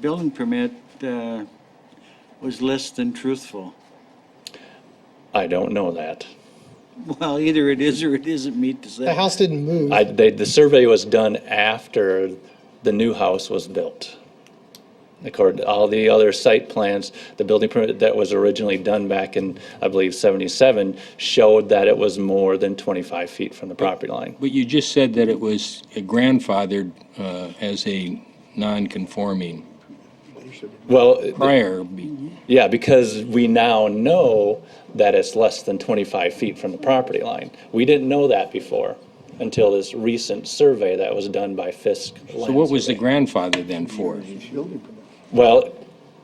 building permit uh, was less than truthful. I don't know that. Well, either it is or it isn't meet the The setback. house didn't move. I, they, the survey was done after the new house was built. According to all the other site plans, the building permit that was originally done back in, I believe, seventy-seven showed that it was more than twenty-five feet from the property line. But you just said that it was grandfathered uh, as a non-conforming Well, prior. yeah, because we now know that it's less than twenty-five feet from the property line. We didn't know that before until this recent survey that was done by Fisk. So what was the grandfather then for? Well,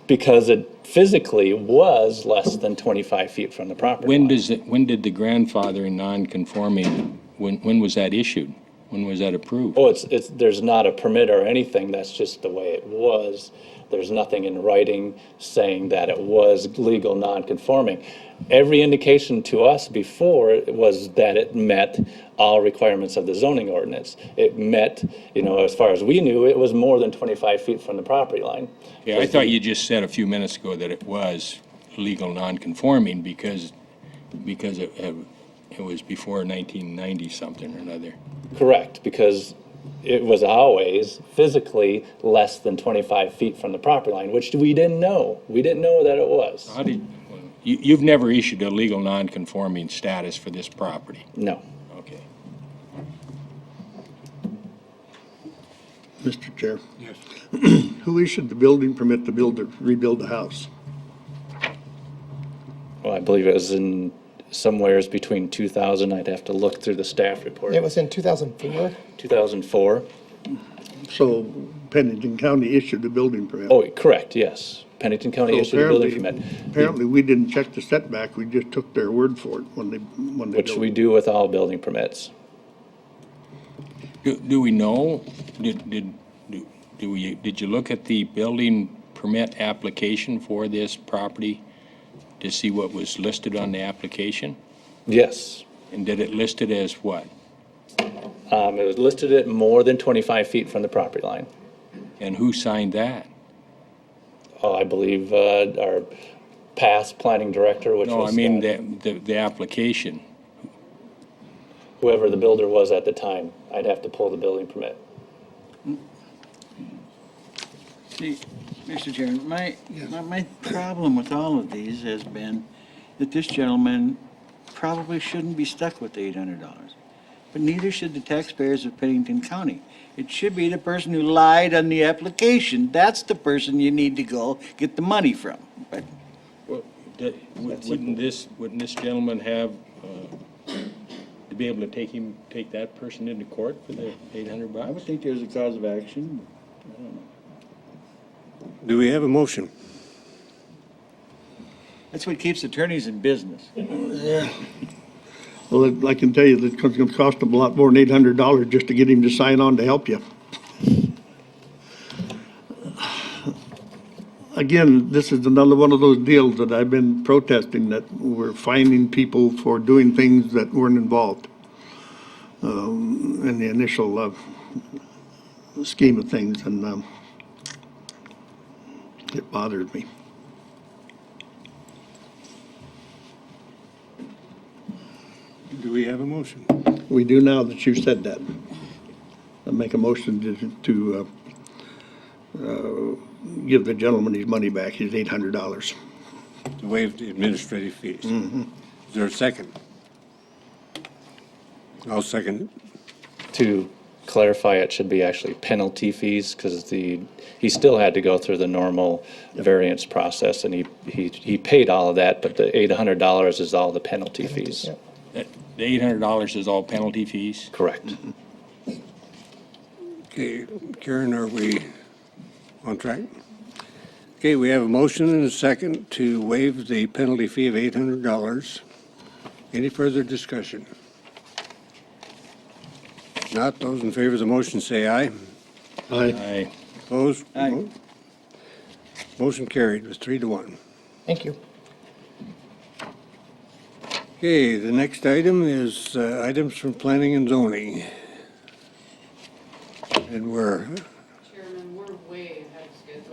because it physically was less than 25 feet from the property When line. does it, when did the grandfathering non-conforming, when, when was that issued? When was that approved? Oh, it's, it's, there's not a permit or anything, that's just the way it was. There's nothing in writing saying that it was legal non-conforming. Every indication to us before was that it met all requirements of the zoning ordinance. It met, you know, as far as we knew, it was more than 25 feet from the property line. Yeah, I thought you just said a few minutes ago that it was legal non-conforming because, because it, it was before 1990 something or another. Correct, because it was always physically less than 25 feet from the property line, which we didn't know. We didn't know that it was. How did, you, you've never issued a legal non-conforming status for this property? No. Okay. Mr. Chair. Yes. Who issued the building permit to build, the- rebuild the house? Well, I believe it was in somewheres between 2000, I'd have to look through the staff report. It was in 2004. 2004? So Pennington County issued the building permit. Oh, correct, yes. Pennington County So issued a building apparently- permit, Apparently, we didn't check the setback, we just took their word for it when they, when they. which built we it. do with all building permits. Do, do we know, did, did, do- do we, did you look at the building permit application for this property to see what was listed on the application? Yes. And did it list it as what? Um, It was listed at more than 25 feet from the property line. And who signed that? Oh, I believe uh, our past planning director, which was. No, I mean, Scott. the, the, the application. whoever the builder was at the time. I'd have to pull the building permit. See, Mr. Chairman, my, my- my problem with all of these has been that this gentleman probably shouldn't be stuck with the $800, but neither should the taxpayers of Pennington County. It should be the person who lied on the application. That's the person you need to go get the money from. But Wouldn't this, wouldn't this gentleman have, uh, to be able to take him, take that person into court for the eight hundred I bucks? would think there's a cause of action. Do we have a motion? that's what keeps attorneys in business. Well, it- I can tell you that it's gonna cost them a lot more than eight hundred dollars just to get him to sign on to help you. Again, this is another one of those deals that I've been protesting, that we're finding people for doing things that weren't involved um, in the initial uh, scheme of things, and um, it bothers me. Do we have a motion? We do now that you said that. I make a motion to, to, uh, uh, give the gentleman his money back, his eight hundred dollars. To waive the administrative fees. Is there a second? I'll second it. To clarify, it should be actually penalty fees because the, he still had to go through the normal variance process and he, he, he paid all of that, but the eight hundred dollars is all the penalty fees. yep. The eight hundred dollars is all penalty fees? Correct. Okay, Karen, are we on track? Okay, we have a motion and a second to waive the penalty fee of $800. Any further discussion? Not those in favor of the motion, say aye. I, Aye. Opposed? Aye. Motion carried with three to one. Thank you. Okay, the next item is uh, items from planning and zoning. And we're